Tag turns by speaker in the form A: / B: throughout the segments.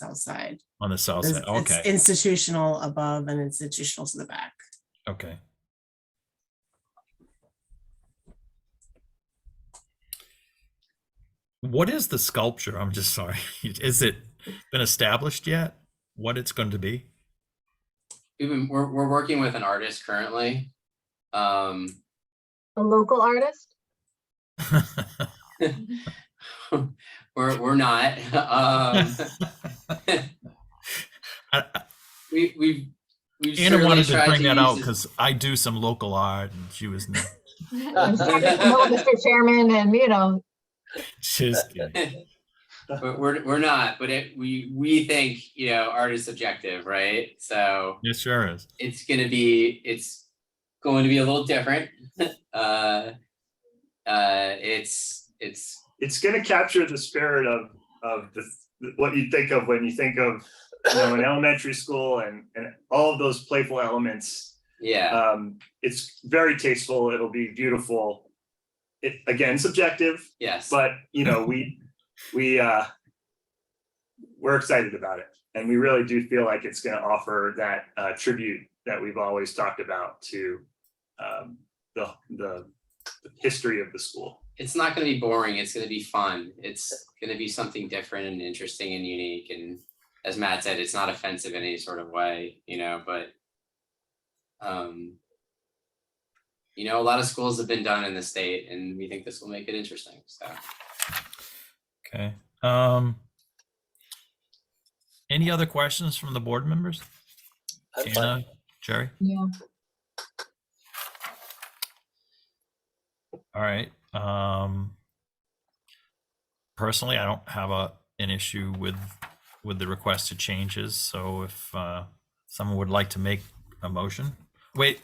A: south side.
B: on the south
A: It's
B: side. Okay,
A: it's institutional above and institutional to the back.
B: okay. What is the sculpture? I'm just sorry. Is it been established yet? What it's going to be?
C: We've been, we're, we're working with an artist currently. Um,
D: A local artist?
C: we're, we're not, um,
B: I- I-
C: we, we've. we've
B: Anna
C: certainly
B: wanted to
C: tried
B: bring that out
C: use as-
B: because I do some local art, and she was not-
D: I'm sorry, no, Mr. Chairman, and you know,
B: just kidding.
C: But we're, we're not, but it, we, we think, you know, art is subjective, right? So
B: It sure is.
C: it's gonna be, it's going to be a little different. Uh, uh, it's, it's,
E: it's going to capture the spirit of of the what you think of when you think of you know an elementary school and and all of those playful elements.
C: yeah.
E: Um, it's very tasteful. It'll be beautiful. It again subjective,
C: Yes.
E: but you know we we uh, we're excited about it, and we really do feel like it's going to offer that uh, tribute that we've always talked about to um, the the the history of the school.
C: it's not going to be boring. It's going to be fun. It's going to be something different and interesting and unique. And as Matt said, it's not offensive in any sort of way, you know, but, um, you know, a lot of schools have been done in the state and we think this will make it interesting. So
B: Okay. Um, any other questions from the board members?
F: I'm fine.
B: Anna, Jerry?
D: yeah,
B: All right. Um, personally, I don't have a, an issue with, with the requested changes. So if, uh, someone would like to make a motion, wait,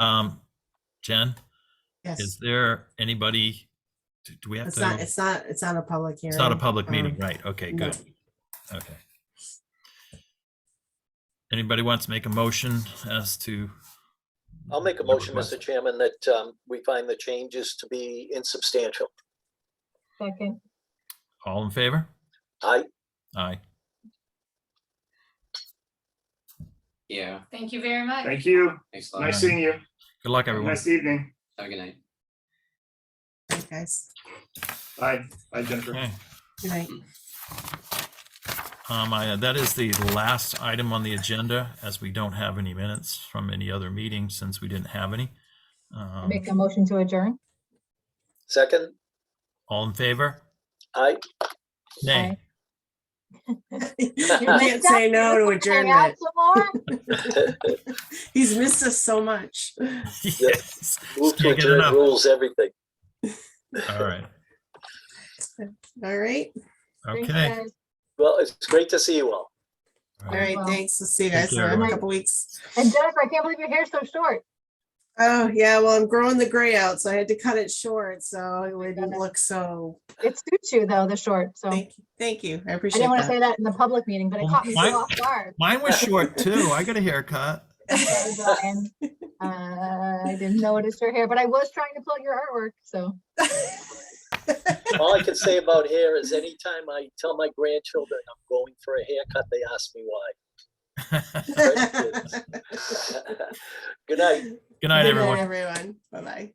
B: um, Jen,
A: Yes,
B: is there anybody, do- do we have
A: it's not,
B: to?
A: it's not, it's not a public hearing.
B: It's not a public meeting,
A: um,
B: right? Okay,
A: no.
B: good. Okay. Anybody wants to make a motion as to?
F: I'll make a
B: the
F: motion,
B: request?
F: Mr. Chairman, that um, we find the changes to be insubstantial.
D: second,
B: All in favor?
F: I,
B: Aye.
C: yeah,
G: Thank you very much.
E: Thank you.
C: thanks a lot.
E: Nice seeing you.
B: Good luck,
E: Have a
B: everyone.
E: Nice evening.
C: Have a good night.
A: Thanks, Guys,
E: Bye. Bye, Jennifer.
B: Okay.
A: good night.
B: Um, I, that is the last item on the agenda, as we don't have any minutes from any other meeting since we didn't have any. Um,
D: make a motion to adjourn.
F: second,
B: All in favor?
F: I,
B: Nay.
A: You can't say no to
D: Hang out
A: adjournment.
D: some more?
A: He's missed us so much.
B: Yes.
F: move to
B: Can't get
F: adjourn
B: enough.
F: rules everything.
B: All right.
A: All right,
D: Thanks,
B: Okay.
D: guys.
F: Well, it's great to see you all.
B: All
A: all
B: right.
A: right,
D: Well,
A: thanks. We'll see you
B: take
A: guys in
B: care,
A: a
B: everyone.
A: couple weeks.
D: And Jennifer, I can't believe your hair's so short.
A: Oh, yeah, well, I'm growing the gray out, so I had to cut it short, so it wouldn't
D: goodness.
A: look so,
D: It suits you though, the short, so. I
A: thank, thank you. I appreciate
D: didn't want to
A: that.
D: say that in the public meeting, but it
B: Well,
D: caught me so
B: mine-
D: off guard.
B: Mine was short too. I got a haircut.
D: Sorry, Brian. Uh, I didn't notice your hair, but I was trying to pull your artwork, so.
F: All I can say about hair is anytime I tell my grandchildren I'm going for a haircut, they ask me why. Good night.
A: Good
F: Good night, everyone.
A: Everyone, bye-bye.